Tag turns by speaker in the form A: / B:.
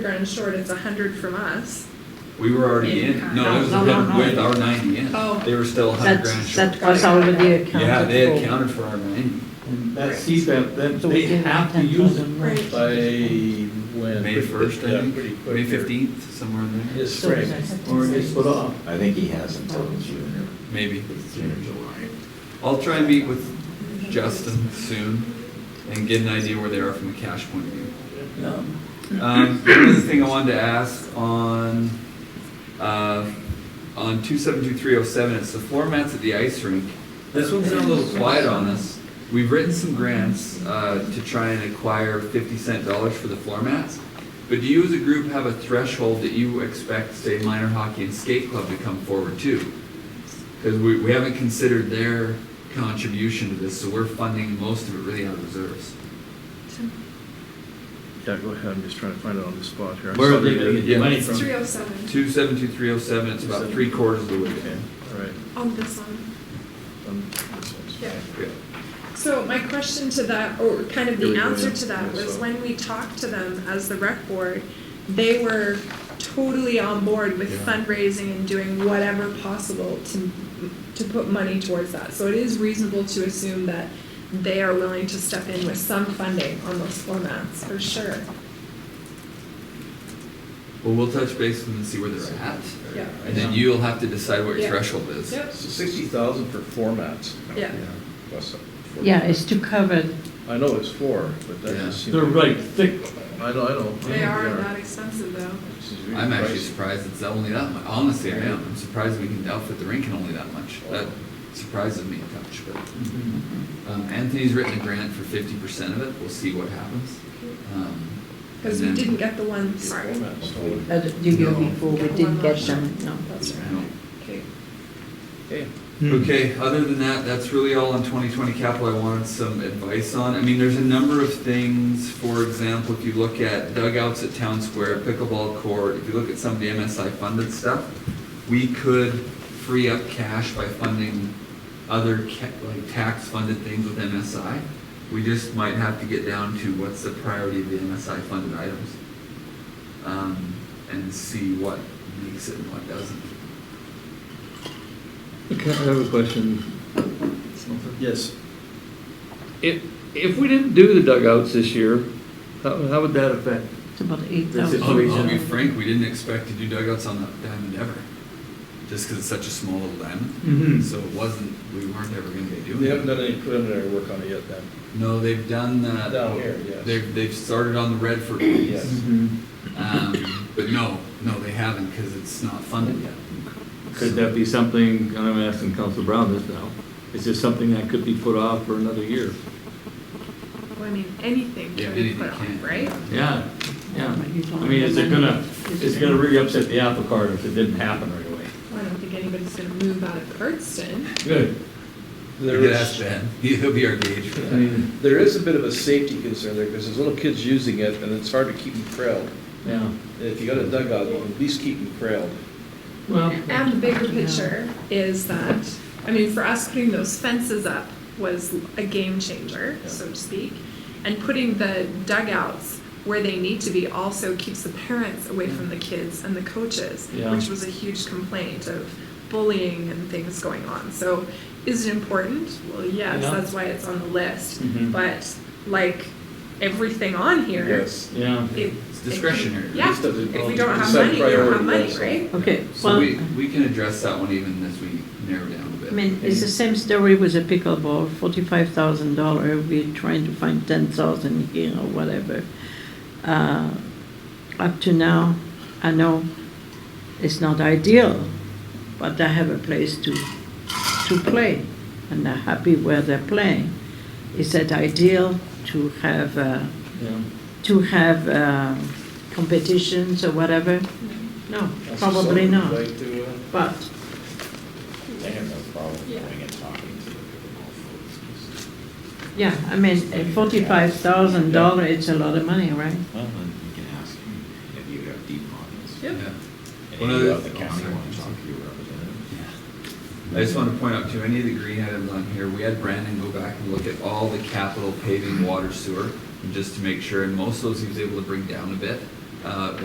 A: you're insured, it's a hundred from us.
B: We were already
A: In
B: in,
A: kind.
B: no, it was
C: No, no, no.
B: with our ninety in.
A: Oh.
B: They were still a hundred grand
C: That's,
B: short.
C: that was already accounted for.
B: Yeah, they had counted for our ninety.
D: And That CPAP, that,
C: So we
D: they
C: give them
D: have to
C: 10,000
D: use it
C: more.
A: Right.
D: by when?
B: May first, I
D: Yeah,
B: think,
D: pretty quick
B: May
D: here.
B: fifteenth, somewhere in there,
D: It's
C: So
D: spring,
C: is that
D: or it's put
C: 10,000?
D: off.
E: I think he has until June
B: maybe.
E: or, June or July.
B: I'll try and meet with Justin soon and get an idea where they are from a cash point of view.
D: No.
B: Um, the other thing I wanted to ask on, uh, on two seven two three oh seven, it's the floor mats at the ice rink. This one's been a little quiet on us. We've written some grants, uh, to try and acquire fifty cent dollars for the floor mats. But do you as a group have a threshold that you expect, say, minor hockey and skate club to come forward to? Cause we, we haven't considered their contribution to this, so we're funding most of it really out of reserves.
F: Yeah, go ahead, I'm just trying to find it on the spot here. I
D: Where
F: saw
D: are they
F: the-
D: gonna get the
B: Yeah.
D: money
A: It's
D: from?
A: three oh seven
B: Two seven two three oh seven, it's about three quarters of the way
F: Okay,
B: down.
F: all right.
A: on this one.
F: Um, this one's-
A: Yeah.
B: Yeah.
A: So my question to that, or kind of
F: Here
A: the
F: we go,
A: answer
F: yeah.
A: to that
F: Yeah,
A: was
F: so-
A: when we talked to them as the rec board, they were totally on board with
B: Yeah.
A: fundraising and doing whatever possible to, to put money towards that. So it is reasonable to assume that they are willing to step in with some funding on those formats, for sure.
B: Well, we'll touch base with them and see where they're at,
A: Yeah.
B: and then you'll have to decide what your
A: Yeah.
B: threshold is.
A: Yep,
D: Sixty thousand for formats.
A: yeah.
C: Yeah, it's to cover,
F: I know it's four, but that
B: Yeah.
F: just seems.
D: They're right thick.
F: I know, I know.
A: They
F: Yeah.
A: are not expensive though.
F: This is really
B: I'm actually
F: pricey.
B: surprised it's only that much, honestly, I am, I'm surprised we can outfit the rink in only that much, that surprises me a touch, but. Um, Anthony's written a grant for fifty percent of it, we'll see what happens. Um,
A: Cause we
B: and then-
A: didn't get the one, sorry.
D: Formats, so-
C: uh, the year
B: No.
C: before, we didn't get them, no.
A: That's right.
B: No.
A: Okay.
F: Okay.
B: Okay, other than that, that's really all on twenty twenty capital I wanted some advice on. I mean, there's a number of things, for example, if you look at dugouts at Town Square, pickleball court, if you look at some of the MSI funded stuff, we could free up cash by funding other ca- like tax funded things with MSI. We just might have to get down to what's the priority of the MSI funded items. Um, and see what makes it and what doesn't.
G: Okay, I have a question.
D: Yes,
G: If, if we didn't do the dugouts this year, how, how would that affect?
C: It's about eight thousand.
B: I'll, I'll be frank, we didn't expect to do dugouts on that diamond ever, just because it's such a small little diamond.
D: Mhm.
B: So it wasn't, we weren't ever gonna be
D: they
B: doing it.
D: haven't done any preliminary work on it yet then.
B: No, they've done that.
D: Down here, yes.
B: They've, they've started on the Redford ones. Um, but no, no, they haven't, because it's not funded yet.
H: Could that be something, and I'm asking Council Brown this now, is this something that could be put off for another year?
A: Well, I mean, anything
B: Yeah,
A: can be
B: anything
A: put on,
B: can.
A: right?
H: Yeah, yeah. I mean, is it gonna, is it gonna really upset the apple cart if it didn't happen right away?
A: Well, I don't think anybody's gonna move out of Curdston.
D: Good.
B: You could ask Ben, he'll be our gauge for
D: I
B: that.
D: mean, there is a bit of a safety concern there, because there's little kids using it, and it's hard to keep them trailed.
H: Yeah,
D: If you got a dugout, you can at least keep them trailed.
H: well,
A: And the bigger picture is that, I mean, for us, putting those fences up was a game changer, so to speak. And putting the dugouts where they need to be also keeps the parents away from the kids and the coaches,
H: Yeah.
A: which was a huge complaint of bullying and things going on. So is it important? Well, yes,
H: Yeah.
A: that's why it's on the list.
H: Mhm.
A: But like everything on here,
H: yeah.
A: it-
B: It's discretionary.
A: Yeah,
D: Just doesn't-
A: if we don't have
D: Set
A: money, we don't have money,
D: priorities.
A: right?
C: Okay,
B: So
C: well,
B: we, we can address that one even as we narrow down a
C: I
B: bit.
C: mean, it's the same story with the pickleball, forty-five thousand dollar, we're trying to find ten thousand here or whatever. Uh, Up to now, I know it's not ideal, but I have a place to, to play, and I'm happy where they're playing. Is it ideal to have, uh,
H: Yeah.
C: to have um, competitions or whatever? No,
D: Mm-hmm. That's
C: probably
D: something
C: not,
D: like to, uh,
C: but
E: They have no problem
A: Yeah.
E: going and talking to the pickleball folks.
C: Yeah, I mean, forty-five thousand dollar, it's a lot of money, right?
E: Well, then you can ask him if you have deep pockets.
A: Yep.
B: Yeah.
E: And
B: One
E: if you
B: other-
E: have the county want to talk to your representative.
B: I just want to point out too, any of the green items on here, we had Brandon go back and look at all the capital paving, water, sewer, just to make sure, and most of those he was able to bring down a bit. Uh,